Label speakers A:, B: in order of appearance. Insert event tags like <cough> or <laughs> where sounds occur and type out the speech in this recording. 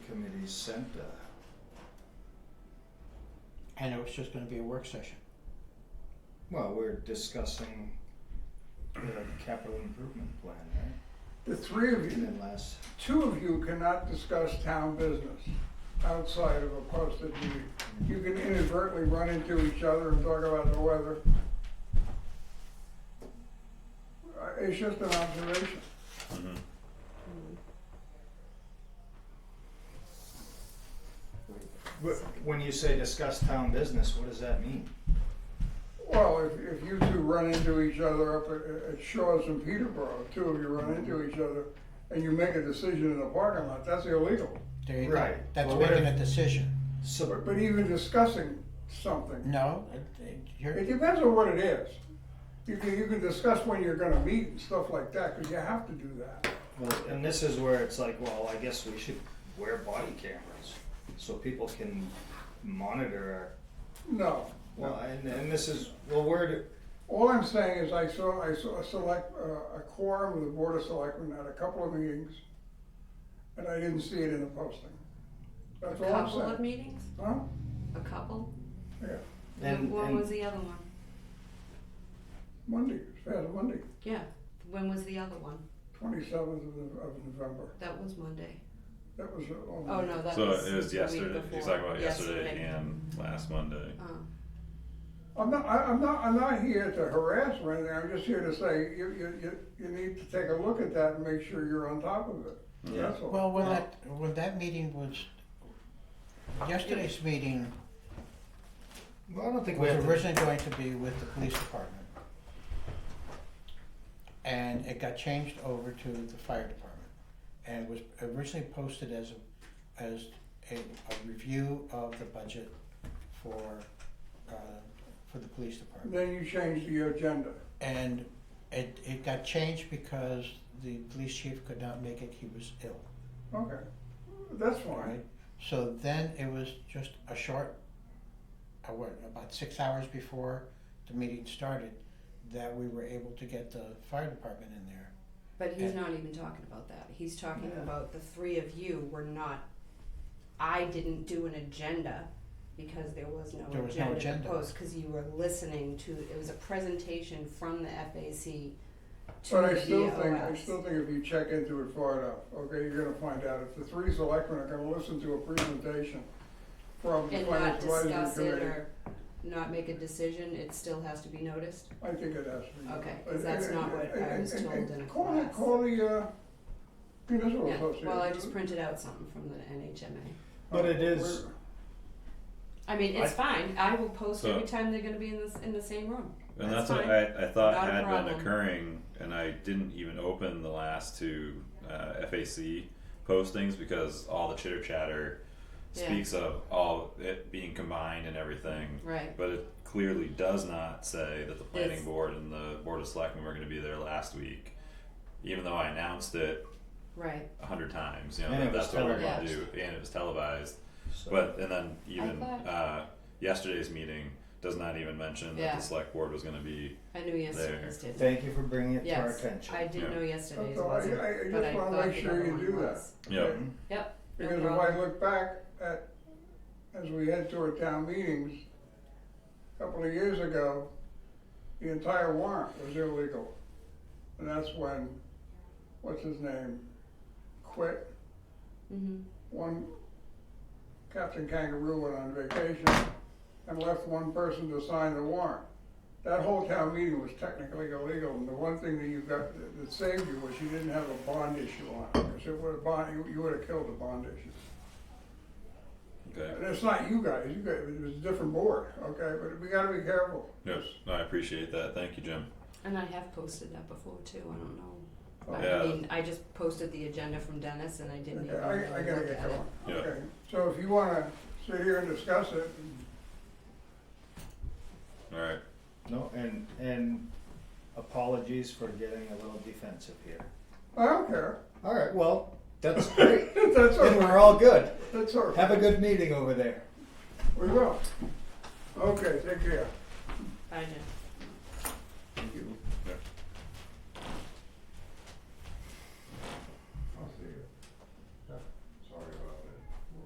A: sent uh
B: and it was just gonna be a work session.
A: Well, we're discussing the capital improvement plan, right?
C: The three of
A: And
C: you,
A: then last,
C: two of you cannot discuss town business outside of a posted meeting. You can inadvertently run into each other and talk about the weather. Uh, It's just an observation.
A: wh- when you say discuss town business, what does that mean?
C: Well, if, if you two run into each other up at, at Shaw's in Peterborough, two of you run into each other, and you make a decision in the parking lot, that's illegal.
B: There you go.
A: Right.
B: That's
A: Well, what
B: making
A: if-
B: a decision.
A: So,
C: But, but even discussing something,
B: No, it, it, you're,
C: it depends on what it is. You can, you can discuss when you're gonna meet and stuff like that, because you have to do that.
A: well, and this is where it's like, well, I guess we should wear body cameras so people can monitor our
C: No.
A: Well, and, and this is, well, where do,
C: All I'm saying is I saw, I saw a select, uh, a quorum of the Board of Selectmen at a couple of meetings, and I didn't see it in the posting. That's
D: A
C: all I'm
D: couple of
C: saying.
D: meetings?
C: Huh?
D: A couple?
C: Yeah,
A: and,
D: When
A: and-
D: was the other one?
C: Monday, it's past Monday,
D: Yeah, when was the other one?
C: twenty-seventh of, the- of November.
D: That was Monday.
C: That was, oh.
D: Oh, no, that
E: so
D: was
E: it was
D: the week
E: yesterday. He's
D: before.
E: talking about yesterday, and last Monday.
D: Oh.
C: I'm not, I, I'm not, I'm not here to harass or anything, I'm just here to say, you, you, you, you need to take a look at that and make sure you're on top of it,
A: yeah,
C: that's all.
B: well, when that, when that meeting was, yesterday's meeting
A: well, I don't think we
B: was
A: have to,
B: originally going to be with the police department. And it got changed over to the fire department. And it was originally posted as a, as a, a review of the budget for, uh, for the police department.
C: Then you change the agenda.
B: and it, it got changed because the police chief could not make it, he was ill,
C: Okay, that's fine.
B: right? So then it was just a short, uh, what, about six hours before the meeting started, that we were able to get the fire department in there.
D: But he's
B: And-
D: not even talking about that. He's talking
C: Yeah.
D: about the three of you were not, I didn't do an agenda because there was no
B: There was no
D: agenda to
B: agenda.
D: post, cause you were listening to, it was a presentation from the FAC to
C: But I
D: the E
C: still think, I
D: VOS.
C: still think if you check into it far enough, okay, you're gonna find out if the three selectmen are gonna listen to a presentation from the
D: And not
C: financial
D: discuss
C: advisory
D: it
C: committee,
D: or not make a decision, it still has to be noticed?
C: I think it has to be.
D: Okay, 'cause that's
C: And-
D: not what
C: and-
D: I
C: and-
D: was
C: and-
D: told
C: and
D: in a
C: Call, the-
D: class.
C: call the, uh, municipal
D: Yeah,
C: association.
D: well, I just printed out something from the NHMA.
A: But it is-
D: I mean, it's fine, I will post
E: So-
D: every time they're gonna be in this, in the same room.
E: And
D: That's
E: that's, what I, I
D: Not
E: thought
D: a
E: had been
D: problem.
E: occurring, and I didn't even open the last two uh, FAC postings because all the chitter chatter
D: Yeah.
E: speaks of all it being combined and everything.
D: Right,
E: But it clearly does not say that the planning
D: It's-
E: board and the board of selectmen were going to be there last week, even though I announced it
D: right.
E: a hundred times. You know
A: And
E: that
A: it was
E: that's what we're going to do,
A: televised.
E: and it was televised.
A: so-
E: But and then even
D: thought-
E: uh, yesterday's meeting does not even mention that
D: Yeah.
E: the select board was going to be.
D: I knew yesterday's
E: There.
D: did.
A: thank you for bringing it to our
D: Yes,
A: attention.
D: I did
E: Yeah.
D: know yesterday's
C: So I-
D: wasn't,
C: I- I
D: but
C: just
D: I
C: wanna
D: thought
C: make
D: the
C: sure
D: other
C: you do
D: one
C: that.
D: was.
E: Yeah.
A: Hmm?
D: Yep, no
C: Because if I
D: problem.
C: look back at, as we head toward town meetings, a couple of years ago, the entire warrant was illegal. And that's when, what's his name, quit.
D: Mhm.
C: One, Captain Kangaroo went on vacation and left one person to sign the warrant. That whole town meeting was technically illegal, and the one thing that you got, that- that saved you was you didn't have a bond issue on it. Because it would have bond, you- you would have killed the bond issue.
E: Okay.
C: And it's not you guys, you guys, it was a different board, okay, but we gotta be careful.
E: Yes, no, I appreciate that. Thank you, Jim.
D: And I have posted that before too, I don't know. I
E: Yeah.
D: mean, I just posted the agenda from Dennis and I didn't
C: Oh. Okay,
D: even
C: I, I
D: really
C: gotta
D: look
C: get
D: at it.
C: going,
E: Yeah.
C: okay, so if you wanna sit here and discuss it,
E: All right.
A: No, and, and apologies for getting a little defensive here.
C: I don't care, <laughs>
A: All right, well, that's great,
C: that's all
A: and
C: right,
A: we're all good.
C: that's all right,
A: Have a good meeting over there.
C: we will. Okay, take care.
D: I did.
A: Thank you.